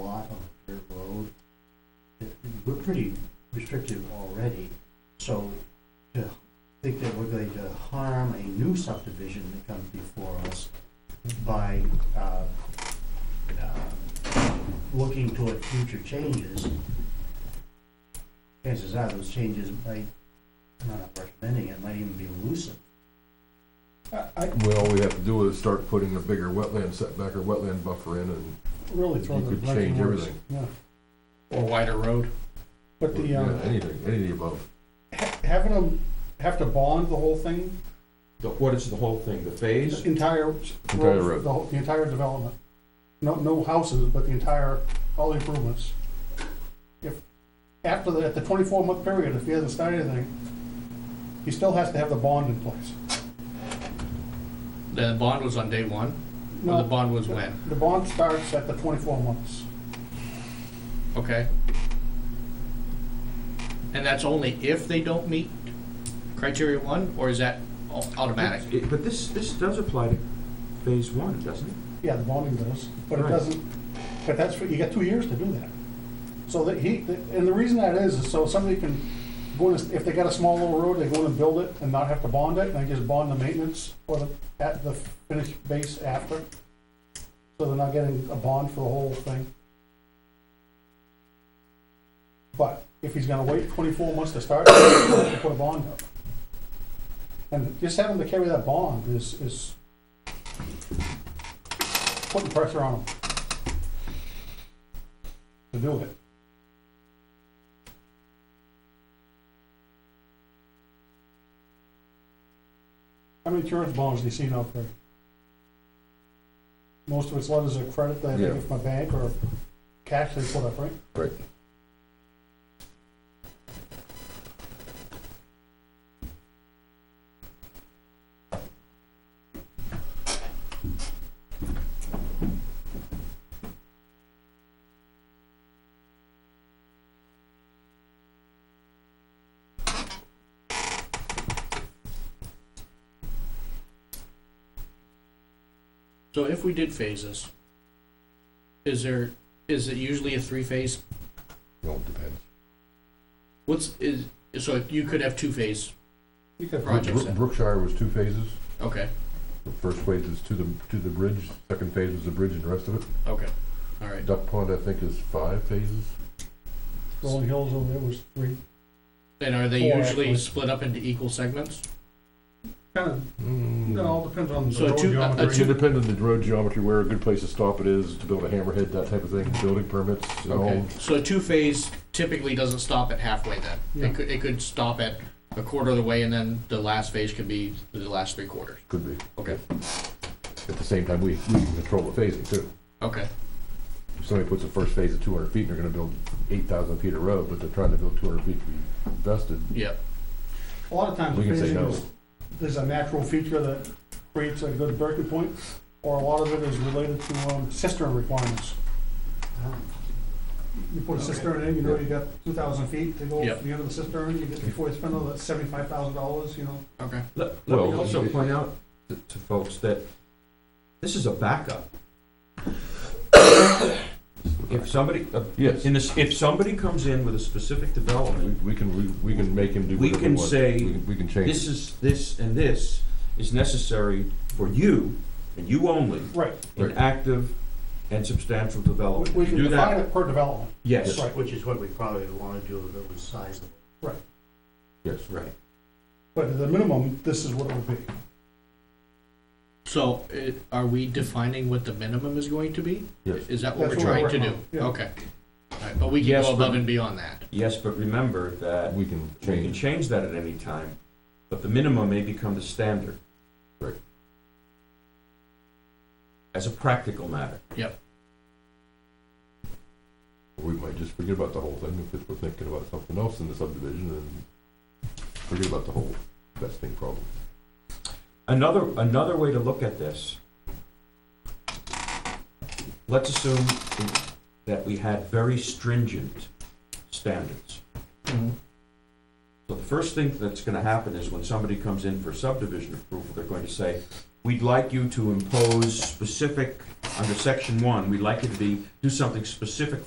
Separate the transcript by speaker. Speaker 1: lot on Dirt Road. It- We're pretty restrictive already, so to think that we're going to harm a new subdivision that comes before us by, uh, uh, looking toward future changes, chances are those changes might, I'm not recommending, it might even be elusive.
Speaker 2: I, I
Speaker 3: Well, all we have to do is start putting a bigger wetland setback or wetland buffer in and
Speaker 2: really throw
Speaker 3: You
Speaker 2: the.
Speaker 3: could
Speaker 2: blank
Speaker 3: change
Speaker 2: words.
Speaker 3: everything.
Speaker 2: Yeah,
Speaker 4: Or wider road.
Speaker 2: but the,
Speaker 3: yeah,
Speaker 1: uh,
Speaker 2: um,
Speaker 3: anything, any of the above.
Speaker 2: ha- having them have to bond the whole thing,
Speaker 5: The, what is the whole thing, the
Speaker 2: the
Speaker 5: phase?
Speaker 2: entire. s-
Speaker 3: Entire
Speaker 2: road,
Speaker 3: road.
Speaker 2: The whole, the entire development. No, no houses, but the entire, all the improvements. If, after the, at the twenty-four month period, if he hasn't started anything, he still has to have the bond in place.
Speaker 4: The bond was on day one, or
Speaker 2: No,
Speaker 4: the bond was when,
Speaker 2: The bond starts at the twenty-four months.
Speaker 4: okay? And that's only if they don't meet criteria one, or is that au- automatic?
Speaker 5: It- But this, this does apply to phase one, doesn't it?
Speaker 2: Yeah, the bonding does, but it
Speaker 5: Right.
Speaker 2: doesn't, but that's, for- you got two years to do that. So that he, and the reason that is, is so somebody can go in, if they got a small little road, they go in and build it and not have to bond it, and they just bond the maintenance or the, at the finished base after. So they're not getting a bond for the whole thing. But if he's gonna wait twenty-four months to start, he'll have to put a bond up. And just having to carry that bond is, is putting pressure on them to do it. How many insurance bonds do you see out there? Most of it's letters of credit that I
Speaker 3: Yeah.
Speaker 2: think it's my bank or cash they put up, right?
Speaker 3: Right.
Speaker 4: So if we did phases, is there, is it usually a three-phase?
Speaker 3: Well, it depends.
Speaker 4: What's, is, so you could have two-phase,
Speaker 2: You could,
Speaker 4: Right.
Speaker 3: Brook- Brookshire was two phases.
Speaker 4: okay,
Speaker 3: The first phase is to the, to the bridge, second phase is the bridge and the rest of it.
Speaker 4: okay, all right.
Speaker 3: Duck Pond, I think, is five phases.
Speaker 2: Rolling Hills over there was three,
Speaker 4: And are they
Speaker 2: Four,
Speaker 4: usually
Speaker 2: actually.
Speaker 4: split up into equal segments?
Speaker 2: kind of,
Speaker 3: Mm.
Speaker 2: it all depends on the
Speaker 4: So
Speaker 2: road
Speaker 4: two- a- a
Speaker 3: It
Speaker 2: geometry.
Speaker 3: should depend on the road geometry, where a good place to stop it is, to build a hammerhead, that type of thing, building permits, you
Speaker 4: Okay,
Speaker 3: know.
Speaker 4: so two-phase typically doesn't stop at halfway then?
Speaker 2: Yeah.
Speaker 4: It could, it could stop at a quarter of the way and then the last phase could be the last three quarters?
Speaker 3: Could be.
Speaker 4: Okay.
Speaker 3: At the same time, we, we can control the phasing too.
Speaker 4: Okay,
Speaker 3: If somebody puts the first phase at two hundred feet, and they're gonna build eight thousand feet of road, but they're trying to build two hundred feet to be vested,
Speaker 4: yep,
Speaker 2: A lot of times,
Speaker 3: we can say
Speaker 2: phasing
Speaker 3: no.
Speaker 2: is, there's a natural feature that creates a good breaking point, or a lot of it is related to um, cistern requirements. You put a cistern in, you know, you got two thousand feet to go
Speaker 4: Yep.
Speaker 2: from the end of the cistern, you get, before you spend all that seventy-five thousand dollars, you know.
Speaker 4: okay.
Speaker 5: Let, let me
Speaker 3: Well,
Speaker 5: also
Speaker 3: it-
Speaker 5: point out to, to folks that this is a backup. If somebody, uh,
Speaker 3: Yes,
Speaker 5: in this, if somebody comes in with a specific
Speaker 3: we,
Speaker 5: development,
Speaker 3: we can, we- we can make him do
Speaker 5: We
Speaker 3: whatever we
Speaker 5: can
Speaker 3: want.
Speaker 5: say
Speaker 3: We can- We can change.
Speaker 5: this is, this and this is necessary for you, and you only,
Speaker 2: Right.
Speaker 5: in
Speaker 3: Right.
Speaker 5: active and substantial development.
Speaker 2: We
Speaker 5: If you
Speaker 2: can
Speaker 5: do that-
Speaker 2: define it per development.
Speaker 5: Yes,
Speaker 2: Right.
Speaker 1: Which is what we probably would wanna do if it was sizable.
Speaker 3: Yes,
Speaker 5: right.
Speaker 2: But at the minimum, this is what it would be.
Speaker 4: So, it, are we defining what the minimum is going to be?
Speaker 3: yes.
Speaker 4: Is that what we're
Speaker 2: That's what
Speaker 4: trying
Speaker 2: we're
Speaker 4: to do?
Speaker 2: working on, yeah.
Speaker 4: Okay, all right, but we can
Speaker 5: Yes,
Speaker 4: go above
Speaker 5: but-
Speaker 4: and beyond that.
Speaker 5: Yes, but remember that
Speaker 3: We can
Speaker 5: We can
Speaker 3: change.
Speaker 5: change that at any time, but the minimum may become the standard.
Speaker 3: Right.
Speaker 5: As a practical matter.
Speaker 3: We might just forget about the whole thing if we're thinking about something else in the subdivision and forget about the whole vesting problem.
Speaker 5: Another, another way to look at this, let's assume that we had very stringent standards. So the first thing that's gonna happen is when somebody comes in for subdivision approval, they're going to say, we'd like you to impose specific under section one, we'd like it to be, do something specific